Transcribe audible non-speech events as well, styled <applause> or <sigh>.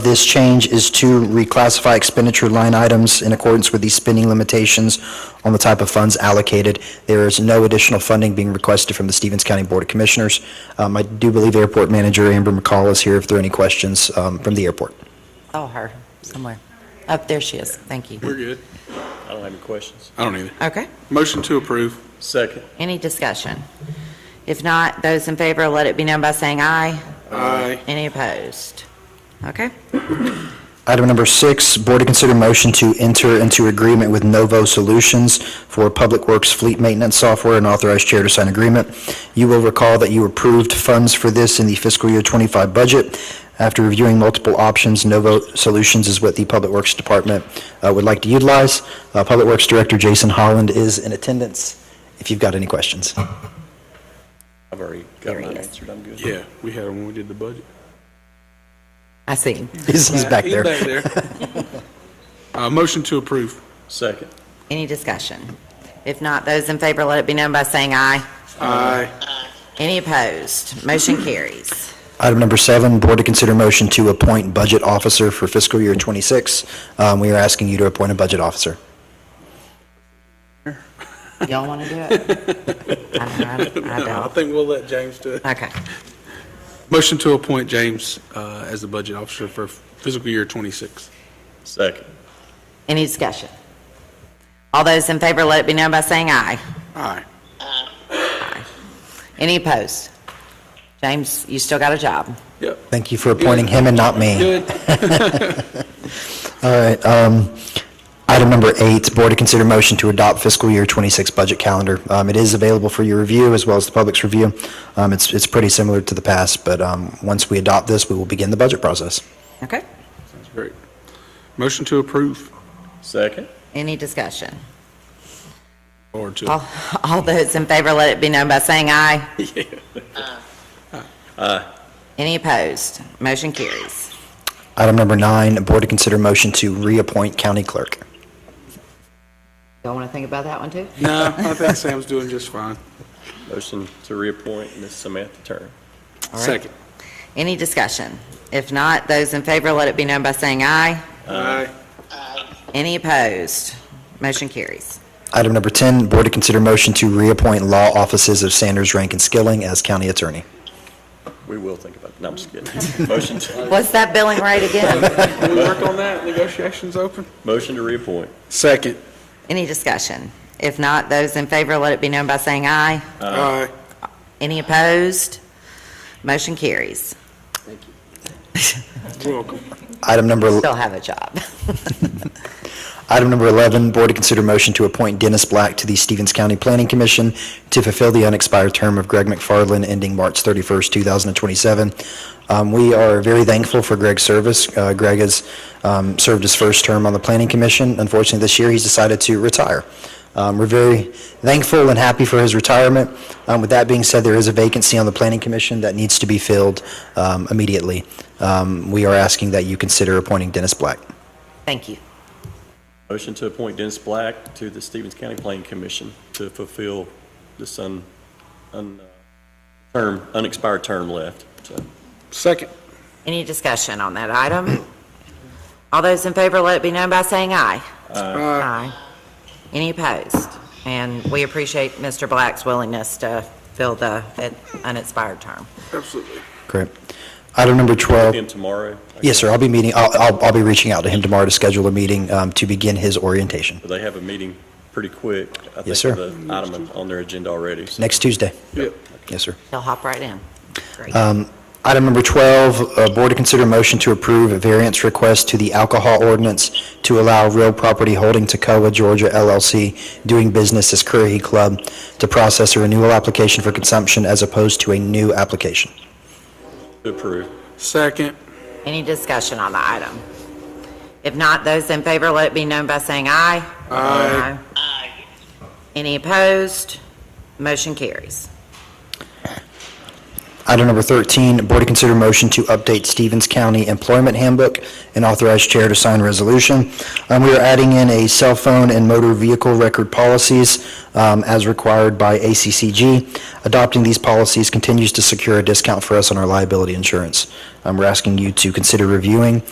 This change is to reclassify expenditure line items in accordance with the spending limitations on the type of funds allocated. There is no additional funding being requested from the Stevens County Board of Commissioners. Um, I do believe Airport Manager Amber McCall is here if there are any questions um, from the airport. Oh, her, somewhere. Up there she is. Thank you. We're good. I don't have any questions. I don't either. Okay, Motion to approve. Second. any discussion? If not, those in favor, let it be known by saying aye. Aye. Any opposed? Okay, Item number six, board to consider motion to enter into agreement with Novo Solutions for Public Works Fleet Maintenance Software and authorize chair to sign agreement. You will recall that you approved funds for this in the fiscal year 25 budget. After reviewing multiple options, Novo Solutions is what the Public Works Department uh, would like to utilize. Uh, Public Works Director Jason Holland is in attendance if you've got any questions. <laughs> I've already got mine answered. I'm good. Yeah, we had them when we did the budget. I see him. He's he's back He's there. there. Uh, motion to approve. Second. Any discussion? If not, those in favor, let it be known by saying aye. Aye. Any opposed? Motion carries. Item number seven, board to consider motion to appoint budget officer for fiscal year 26. Um, We are asking you to appoint a budget officer. Y'all want to do it? I don't. I I don't. think we'll let James do <laughs> it. Okay, Motion to appoint James, uh, as the budget officer for fiscal year twenty-six. Second. any discussion? All those in favor, let it be known by saying aye. Aye. Any opposed? James, you still got a job. Yep. Thank you for appointing him and not me. All right. um, Item number eight, board to consider motion to adopt fiscal year 26 budget calendar. Um, It is available for your review as well as the public's review. Um, It's it's pretty similar to the past, but um, once we adopt this, we will begin the budget process. Okay. Sounds great. Motion to approve, Second. Any discussion? or to, All, all those in favor, let it be known by saying aye. Uh, Any opposed? Motion carries. Item number nine, board to consider motion to reappoint county clerk. Y'all want to think about that one too? no, I think Sam's doing just fine. Motion to reappoint Ms. Samantha Turner. right. Second. Any discussion? If not, those in favor, let it be known by saying aye. Aye. Any opposed? Motion carries. Item number 10, board to consider motion to reappoint law offices of Sanders, Rankin, Skilling as county attorney. We will think about it. No, I'm just kidding. Motion to, What's that billing rate <laughs> again? Can we work on that? Negotiations open? motion to reappoint. Second. Any discussion? If not, those in favor, let it be known by saying aye. Aye. Any opposed? Motion carries. Welcome. Item number, Still have a job. <laughs> item number 11, board to consider motion to appoint Dennis Black to the Stevens County Planning Commission to fulfill the unexpired term of Greg McFarland ending March 31st, 2027. Um, We are very thankful for Greg's service. Uh, Greg has um, served his first term on the Planning Commission. Unfortunately, this year, he's decided to retire. Um, We're very thankful and happy for his retirement. Um, With that being said, there is a vacancy on the Planning Commission that needs to be filled um, immediately. Um, We are asking that you consider appointing Dennis Black. Thank you. Motion to appoint Dennis Black to the Stevens County Planning Commission to fulfill this un, un, uh, term, unexpired term left. So, Second. Any discussion on that item? <clears throat> All those in favor, let it be known by saying aye. Aye. Aye. Any opposed? And we appreciate Mr. Black's willingness to fill the unexpired term. Absolutely. Great. Item number 12. Him tomorrow. Yes, sir, I'll be meeting, I'll, I'll I'll be reaching out to him tomorrow to schedule a meeting um, to begin his orientation, They have a meeting pretty quick. I think, Yes, sir. of the item on their agenda already. So next Tuesday. Yep. Yes, sir. He'll hop right in. Great. Item number 12, uh, board to consider motion to approve a variance request to the alcohol ordinance to allow real property holding Toccoa, Georgia LLC, doing business as Curry Club, to process a renewal application for consumption as opposed to a new application. to approve. Second. Any discussion on the item? If not, those in favor, let it be known by saying aye. Aye. Any opposed? Motion carries. Item number 13, board to consider motion to update Stevens County Employment Handbook and authorize chair to sign resolution. Um, We are adding in a cell phone and motor vehicle record policies um, as required by ACCG. Adopting these policies continues to secure a discount for us on our liability insurance. Um, We're asking you to consider reviewing